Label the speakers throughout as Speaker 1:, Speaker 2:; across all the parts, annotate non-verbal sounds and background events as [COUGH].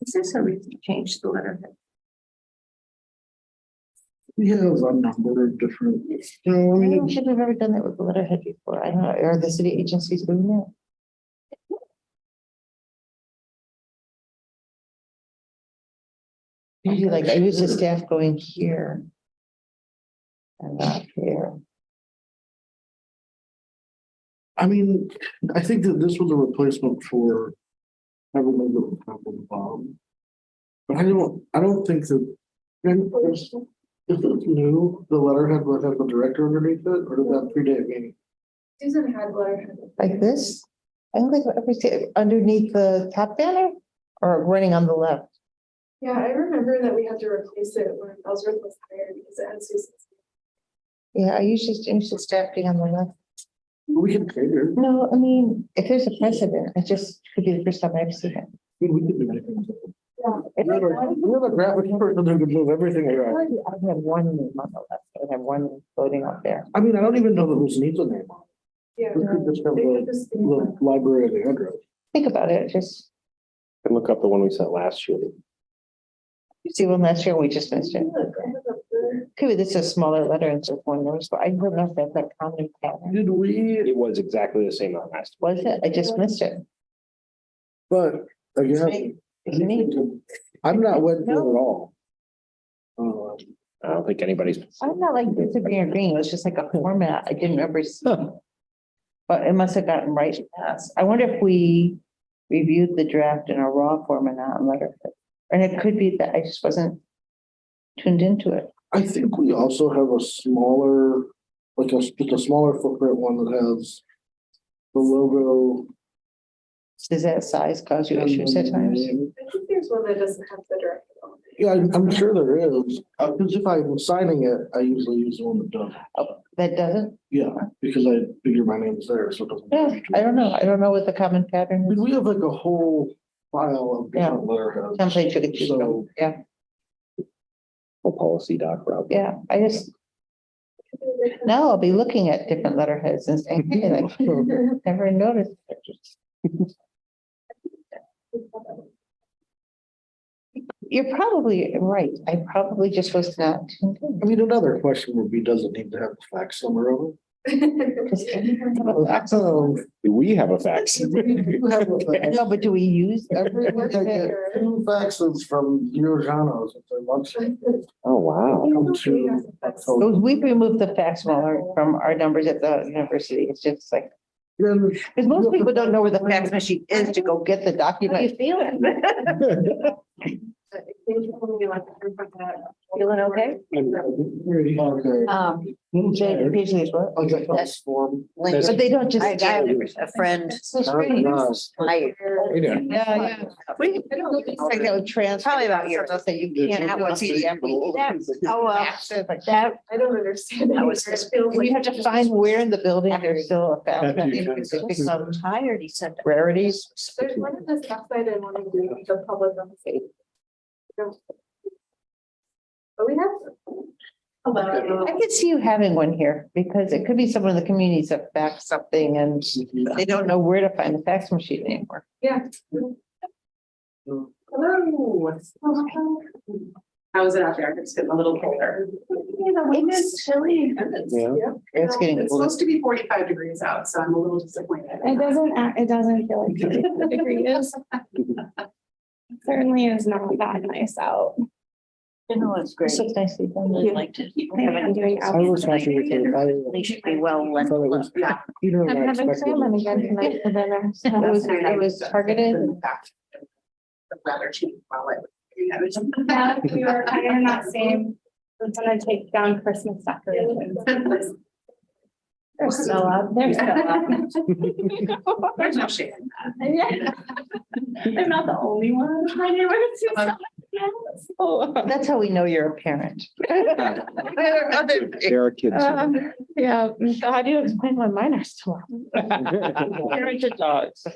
Speaker 1: Is there some reason to change the letterhead?
Speaker 2: We have a number of different, you know, I
Speaker 3: I
Speaker 2: mean,
Speaker 3: don't think we've ever done that with the letterhead before. I don't know, are the city agencies doing that? Usually like, I use the staff going here. And not here.
Speaker 2: I mean, I think that this was a replacement for. I remember the problem, um, But I don't, I don't think that. and If if it's new, the letterhead would have the director underneath it, or did that predate me?
Speaker 1: Susan had letterhead.
Speaker 3: Like this? I don't think, I've ever seen- underneath the top banner or running on the left?
Speaker 1: Yeah, I remember that we had to replace it when Ellsworth was hired because it had Susan's.
Speaker 3: Yeah, I usually change the staff being on the left.
Speaker 2: We can cater,
Speaker 3: No, I mean, if there's a precedent, I just could be the first time I've seen it.
Speaker 2: we we could do anything. We're the- we're the graphic person who could move everything around.
Speaker 3: I have one name on the left, I have one floating up there.
Speaker 2: I mean, I don't even know that this needs a name on
Speaker 1: Yeah.
Speaker 2: it. We could just have
Speaker 1: They
Speaker 2: the,
Speaker 1: could just-
Speaker 2: the library of the address.
Speaker 3: Think about it, just,
Speaker 4: And look up the one we sent last year.
Speaker 3: you see one last year, we just missed it.
Speaker 1: Look, I have a blur.
Speaker 3: Could be this is a smaller letter and so one notice, but I don't know if that's a common pattern.
Speaker 2: Did we,
Speaker 4: It was exactly the same on last.
Speaker 3: Was it? I just missed it.
Speaker 2: but again.
Speaker 3: It's me.
Speaker 2: I'm not with you at all. Uh,
Speaker 4: I don't think anybody's.
Speaker 3: I'm not like disagreeing or agreeing, it was just like a format I didn't remember seeing. But it must have gotten right past. I wonder if we reviewed the draft in a raw form and not in letterhead. And it could be that I just wasn't tuned into it.
Speaker 2: I think we also have a smaller, like a, just a smaller footprint one that has the logo.
Speaker 3: Does that size cause you issues at times?
Speaker 1: I think there's one that doesn't have the director on it.
Speaker 2: Yeah, I'm,
Speaker 1: [LAUGHS]
Speaker 2: I'm sure there is, Uh, cause if I'm signing it, I usually use the one that does.
Speaker 3: That doesn't,
Speaker 2: Yeah, because I figure my name's there, so it doesn't.
Speaker 3: yeah, I don't know. I don't know what the common
Speaker 2: I
Speaker 3: pattern
Speaker 2: mean,
Speaker 3: is.
Speaker 2: we have like a whole file of different letterheads.
Speaker 3: Template you could choose
Speaker 2: So-
Speaker 3: from. Yeah,
Speaker 4: full Policy doc, Rob.
Speaker 3: yeah. I just, now I'll be looking at different letterheads and saying,
Speaker 5: [LAUGHS]
Speaker 3: hey, like, never noticed. You're probably right. I probably just was not tuned in.
Speaker 2: I mean, another question would be, does it need to have a fax number over? [LAUGHS]
Speaker 3: Does anyone have a fax?
Speaker 2: Oh.
Speaker 4: Do we have a fax?
Speaker 6: [LAUGHS]
Speaker 2: You have a fax.
Speaker 3: No, but do we use
Speaker 5: [LAUGHS]
Speaker 3: every?
Speaker 2: I get Two faxes from Giorgano's at their lunch.
Speaker 4: Oh, wow.
Speaker 2: Come to October.
Speaker 3: Because We've removed Oh, the fax from our, from our numbers at the university. It's just like,
Speaker 2: [LAUGHS] Then
Speaker 3: because most people don't know where the fax machine is to go get the document.
Speaker 1: feeling? Feeling okay?
Speaker 2: Okay.
Speaker 5: Um,
Speaker 3: Occasionally it's what?
Speaker 2: Like a fax form.
Speaker 5: Link,
Speaker 3: [LAUGHS] But they don't just.
Speaker 5: I got a friend. I-
Speaker 3: Yeah, yeah. Like that would transfer.
Speaker 5: Probably about years.
Speaker 3: They'll Say you can't have one PDF.
Speaker 5: Oh, well,
Speaker 3: Faxes, like,
Speaker 5: that,
Speaker 1: I don't understand.
Speaker 5: That was-
Speaker 1: It feels
Speaker 3: And you have to find where in the building there's still a fax.
Speaker 2: After you-
Speaker 3: machine, because it's
Speaker 5: I'm
Speaker 3: become
Speaker 5: tired, he said.
Speaker 3: Rarities.
Speaker 1: There's one in the south side and one in the the public on the state. But we have. Hello.
Speaker 3: I could see you having one here because it could be someone in the community that backs something and they don't know where to find the fax machine anymore.
Speaker 1: Yeah. Hello. How is it out there? It's getting a little colder. The wind is chilly.
Speaker 4: Yeah.
Speaker 3: It's getting
Speaker 7: It's
Speaker 3: colder.
Speaker 7: supposed to be forty-five degrees out, so I'm a little disappointed. [LAUGHS]
Speaker 6: It doesn't, act- it doesn't feel like the degree is. Certainly is not that nice out.
Speaker 5: You know, it's great.
Speaker 3: This looks nicely done.
Speaker 5: Really liked it.
Speaker 6: I haven't been doing
Speaker 2: I was
Speaker 6: outside.
Speaker 2: watching it.
Speaker 5: They
Speaker 2: I
Speaker 5: should be well lent.
Speaker 2: thought it was.
Speaker 7: Yeah.
Speaker 2: Peter and I
Speaker 6: I'm having
Speaker 2: expected
Speaker 6: salmon
Speaker 2: it.
Speaker 6: [LAUGHS] again tonight for dinner. so-
Speaker 3: It was, it was targeted.
Speaker 7: The weather changed while I was. I was-
Speaker 6: Yeah, We were kind of not saying, we're gonna take down
Speaker 1: [LAUGHS]
Speaker 6: Christmas decorations. There's no up, there's no up.
Speaker 7: There's no shade. in
Speaker 6: I'm not the only one. My neighborhood's too small. So,
Speaker 3: That's how we know you're a parent. [LAUGHS]
Speaker 4: There are kids.
Speaker 6: um, Yeah, so how do you explain why mine are so up? [LAUGHS]
Speaker 3: Parents of dogs.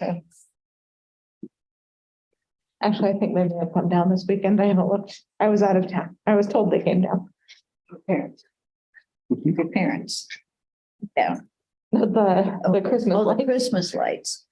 Speaker 6: Actually, I think they may have come down this weekend. I haven't looked. I was out of town. I was told they came down.
Speaker 5: Parents. For parents.
Speaker 6: The, the Christmas
Speaker 5: Oh, the
Speaker 6: lights.
Speaker 5: Christmas lights.